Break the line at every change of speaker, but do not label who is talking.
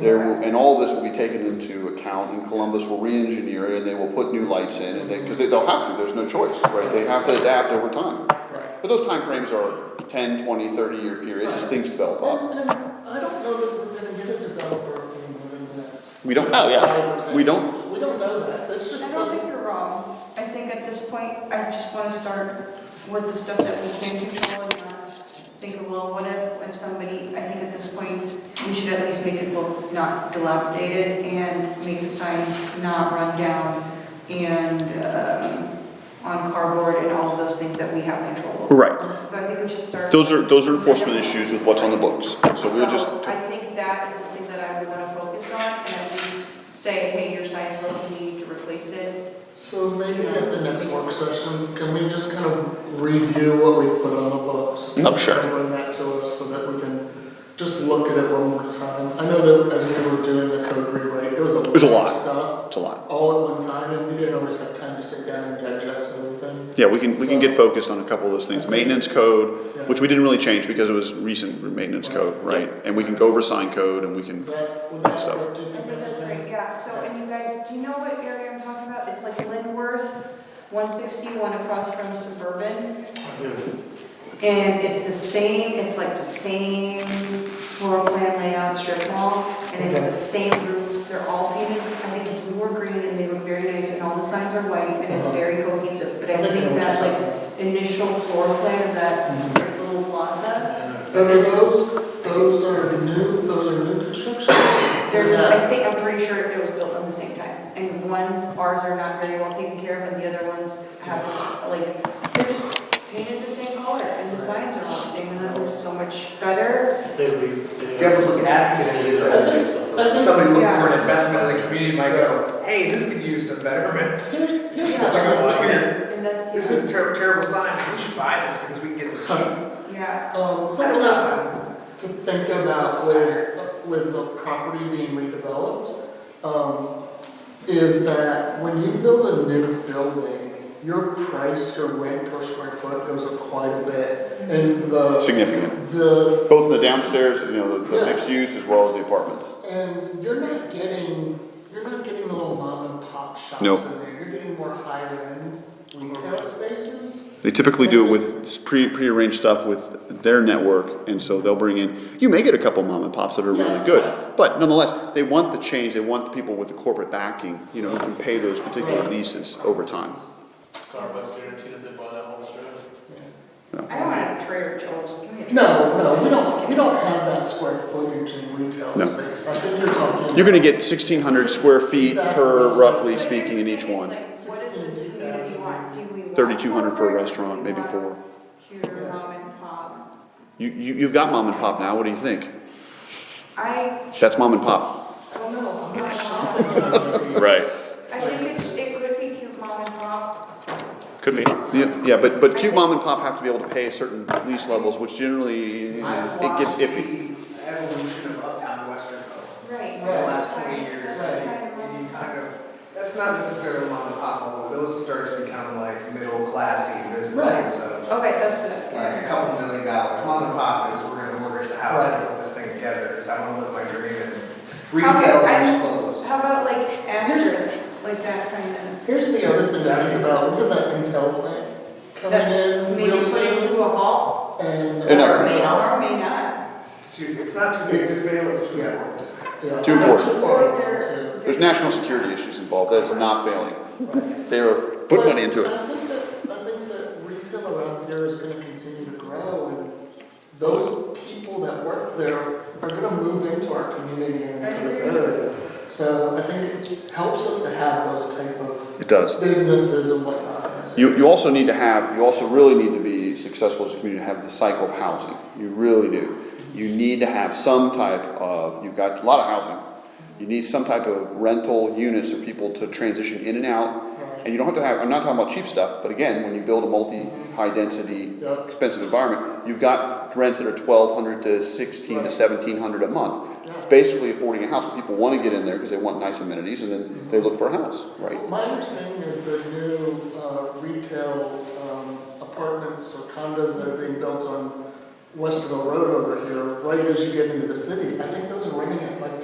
There, will- and all this will be taken into account, and Columbus will re-engineer it, and they will put new lights in, and they, because they'll have to, there's no choice, right? They have to adapt over time.
Right.
But those timeframes are 10, 20, 30-year periods as things develop up.
And, and I don't know that we're gonna get a developer in within the next.
We don't,
Oh, yeah.
five or 10
We don't-
years. We don't know that, that's
I
just,
don't think
that's,
you're wrong. I think at this point, I just want to start with the stuff that we can control and not think, well, what if, if somebody, I think at this point, we should at least make it look not dilapidated and make the signs not run down and um, on cardboard and all of those things that we have control over.
Right.
So I think we should start.
Those are, those are enforcement issues with what's on the books. So we'll just,
So I think that is something that I would want to focus on and at least say, hey, your sign broke, we need to replace it.
so maybe at the next work session, can we just kind of review what we've put on the books?
Oh,
No, Oh, sure.
And bring that to us so that we can just look at it one more time. I know that as we were doing the code rewrite, it was a
was a
lot of
lot.
stuff,
it's a lot.
all at one time, and we didn't always have time to sit down and digest everything.
Yeah, we can, we can get focused on a couple of those things. Maintenance code, which we didn't really change because it was recent maintenance code, right? And we can go over sign code and we can,
Is that, would that
Stuff.
work? Do you
I
think
think
that's
that's
okay?
great, yeah, so, and you guys, do you know what area I'm talking about? It's like Lindworth, one sixty-one across from Suburban. And it's the same, it's like the same floor plan layout strip mall, and it's the same roofs, they're all painted, I think blue or green, and they look very nice, and all the signs are white, and it's very cohesive, but I
Uh-huh. I know
think
what
that
you're
like initial floor plan of that
Mm-hmm.
little plaza,
And are those, those are new, those are new construction?
There's, I
Yeah.
think, I'm pretty sure it was built on the same time, and ones, ours are not very well taken care of, and the other ones have, like, they're just painted the same color, and the signs are all the same, and that looks so much better.
devil's looking advocate is as somebody looking for an investment in the community might go, hey, this could use some betterment.
Here's, here's
That's a good
what
one.
here.
And that's,
This is a ter- terrible sign, we should buy this because we can get it cheap.
yeah,
Um, something else to think about with, with the property being redeveloped, um, is that when you build a new building, your price, your rent per square foot goes up quite a bit, and the,
significant.
the,
Both in the downstairs, you know, the, the
Yeah.
mixed use as well as the apartments.
and you're not getting, you're not getting the little mom and pop shops in
Nope.
there, you're getting more higher-end retail spaces.
They typically do it with pre, prearranged stuff with their network, and so they'll bring in, you may get a couple mom and pops that are really good, but nonetheless, they want the change, they want the people with the corporate backing, you know, who can pay those particular leases over time.
Starbucks guaranteed that they buy that whole strip.
I don't want a Trader Joe's, give me a.
No, no, we don't, we don't have that square footage in retail
No.
space, I think you're talking.
You're gonna get sixteen hundred square feet per, roughly speaking, in each one.
What is this community want? Do we want?
3,200 for a
corporate?
restaurant,
Do we
maybe
want
four.
Pure mom and pop.
You, you, you've got mom and pop now, what do you think?
I,
That's mom and pop.
I don't know, I'm not
I
shopping.
Right.
think it, it could be cute mom and pop.
Could be.
Yeah, yeah, but, but cute mom and pop have to be able to pay certain lease levels, which generally is, it gets iffy.
The Evolution of uptown Western Ho,
Right.
in the last twenty years, and you kind of, that's not necessarily mom and pop, although those start to become like middle classy businesses of
Okay, that's
like a couple million dollars. Mom and pop is we're gonna mortgage the house and put this thing together because I wanna live my dream and resell these clothes.
How about like asterisk, like that kind of?
Here's the other thing to think about, look at that Intel plant coming
That's
in
maybe
real
put
soon,
into a hall,
and. uh,
They're not
or may not, or may not.
It's too, it's not too big to fail, it's too important.
Yeah.
Too
Not
important.
Too far, too.
There's national security issues involved, that is not failing. They are
But
putting money into
I
it.
think that, I think that retail around here is gonna continue to grow, and those people that work there are gonna move into our community and into this area. So I think it helps us to have those type of
It does.
businesses and whatnot.
You, you also need to have, you also really need to be successful as a community, to have the cycle of housing. You really do. You need to have some type of, you've got a lot of housing. You need some type of rental units for people to transition in and out. And you don't have to have, I'm not talking about cheap stuff, but again, when you build a multi, high density,
Yeah.
expensive environment, you've got rents that are twelve hundred to sixteen to
Right.
seventeen hundred a month.
Yeah.
It's Basically affording a house, people wanna get in there because they want nice amenities and then they look for a house, right?
My understanding is the new uh, retail um, apartments or condos that are being built on Westerville Road over here, right as you get into the city, I think those are renting at like